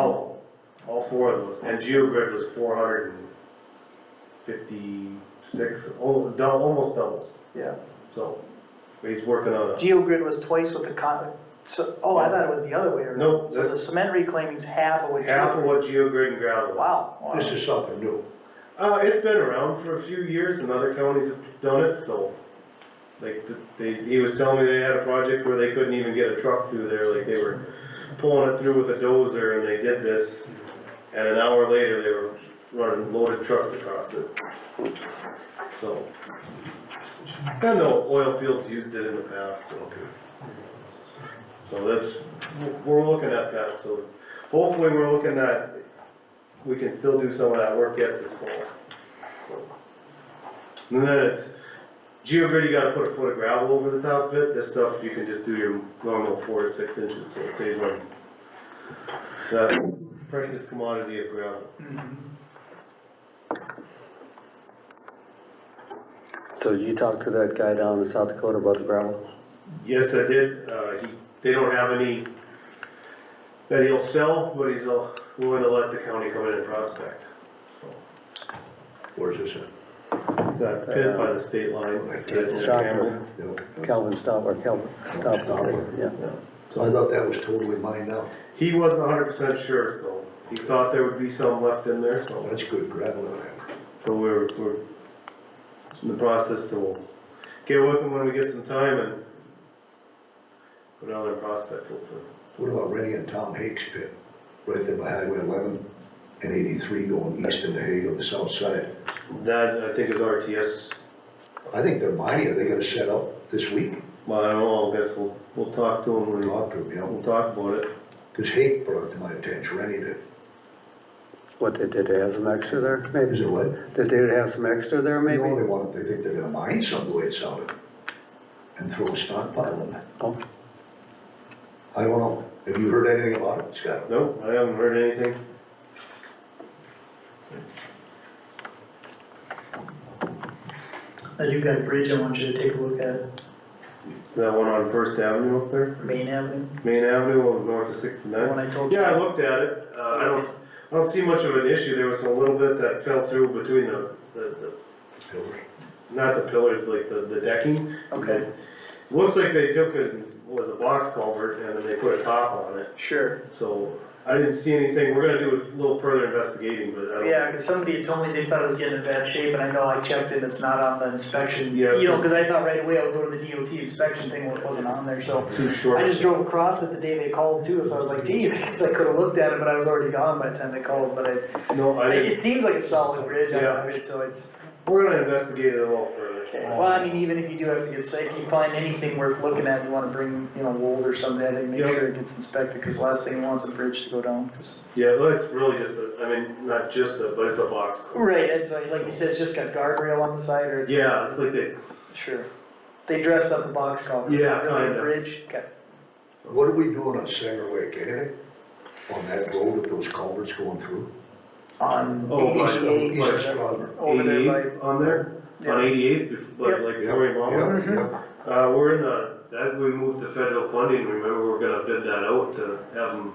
all, all four of those, and GeoGrid was four hundred and fifty-six, almost double, almost double, yeah, so, but he's working on it. GeoGrid was twice what the con, so, oh, I thought it was the other way around. No, So the that's- cement reclaiming's half of what. Half of GeoGrid- what GeoGrid and ground was. Wow. wow. This is something new. Uh, it's been around for a few years and other counties have done it, so, like, th- they, he was telling me they had a project where they couldn't even get a truck through there, like, they were pulling it through with a dozer and they did this, and an hour later, they were running loaded trucks across it. So, I know oil fields used it in the past, so. So that's, we're looking at that, so hopefully we're looking at we can still do some of that work yet this fall. And then it's, geogrid, you gotta put a foot of gravel over the top of it, this stuff, you can just do your normal four to six inches, so it saves on that precious commodity of gravel. So did you talk to that guy down in South Dakota about the gravel? Yes, I did, uh, he, they don't have any that he'll sell, but he's uh, willing to let the county come in and prospect, so. Where's this at? That pit by the state line. that's in Campbell. Stopper, No, no. Calvin Stopper, Calvin Stopper, yeah. So I thought that was totally mined out. He wasn't hundred percent sure, so he thought there would be some left in there, so, That's good gravel in there. so we're, we're in the process, so we'll get with him when we get some time and go down there and prospect hopefully. What about Rennie and Tom Hake's pit? Right there by Highway eleven and eighty-three going east into Hague on the south side. That, I think is RTS, I think they're mining, are they gonna set up this week? well, I don't know, I guess we'll, we'll talk to him when we, Talk to them, you we'll know, talk about it. cause Hake brought it to my attention, Rennie did. What, they did they have some extra there, Is maybe? it what? Did they have some extra there, You know, maybe? they want, they think they're gonna mine some, the way it sounded, and throw a stockpile in there. Oh. I don't know. Have you heard anything about it, Scott? Nope, I haven't heard anything. Now you've got a bridge I want you to take a look at, Is that one on First Avenue up there, Main Avenue, Main Avenue, over north of the sixty-nine? one I told you. Yeah, I looked at it, uh, I don't, I don't see much of an issue, there was a little bit that fell through between the, the, the, not the pillars, but like the, the decking. Okay. Looks like they took a, was a box culvert and then they put a top on it, Sure, so I didn't see anything, we're gonna do a little further investigating, but I don't. yeah, cause somebody had told me they thought it was getting in bad shape, and I know I checked it, it's not on the inspection, Yeah. you know, cause I thought right away I would go to the DOT inspection thing, well, it wasn't on there, so. Too short. I just drove across it the day they called too, so I was like, gee, because I could've looked at it, but I was already gone by the time they called, but I, No, I didn't, it seems like a solid bridge, I Yeah. don't know, it's- so it's. we're gonna investigate it a little further. Well, I mean, even if you do have to get sick, you find anything worth looking at, you wanna bring, you know, wool or something, I think, make Yep. sure it gets inspected, cause last thing you want is a bridge to go down, 'cause- Yeah, well, it's really just a, I mean, not just a, but it's a box. culvert. Right, it's like, like you said, it's just got guardrail on the side, or it's. Yeah, it's like they, Sure. They dressed up the box culvert, it's not Yeah, really kinda. a bridge, okay. What are we doing on Sanger Lake, anything? On that road with those culverts going through? on Oh, my- eighty-eight. oh, or my- East whatever. Strawberry. Over there by- 88th on there, on Yeah. eighty-eighth, like, Yep. like Yep, Florrie Mama. yep, Mhm. yep. Uh, we're in the, that, we moved to federal funding, remember, we're gonna bid that out to have them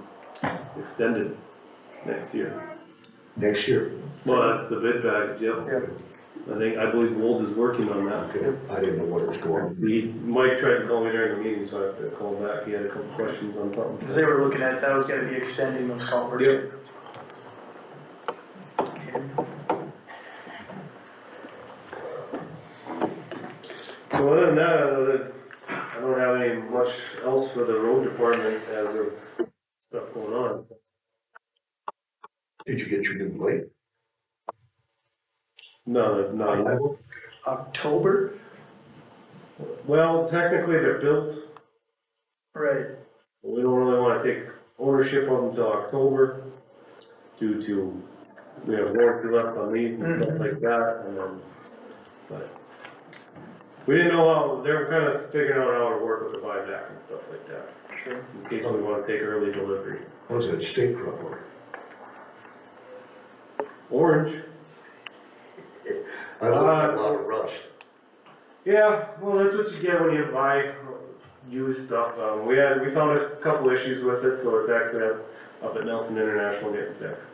extended next year. Next year. Well, that's the bid package, yep. Yeah. I think, I believe Wold is working on that. Okay, I didn't know what was going on. He, Mike tried to call me during the meeting, so I have to call back, he had a couple questions on Cause something. they were looking at, that was gonna be extending those culverts. Yep. So other than that, other, I don't have any much else for the road department as of stuff going on. Did you get your new light? No, not yet. October, Well, technically, they're built, right, but we don't really wanna take ownership of them until October due to, we have warranty left on these and stuff like that, and then, but. We didn't know how, they were kinda figuring out how to work with the buyback and stuff like that, sure. in case we wanna take early delivery. What was that, state rubber? Orange? I Uh, looked at a lot of rust. Yeah, well, that's what you get when you buy used stuff. Um, we had, we found a couple issues with it, so it's actually, up at Nelson International getting fixed.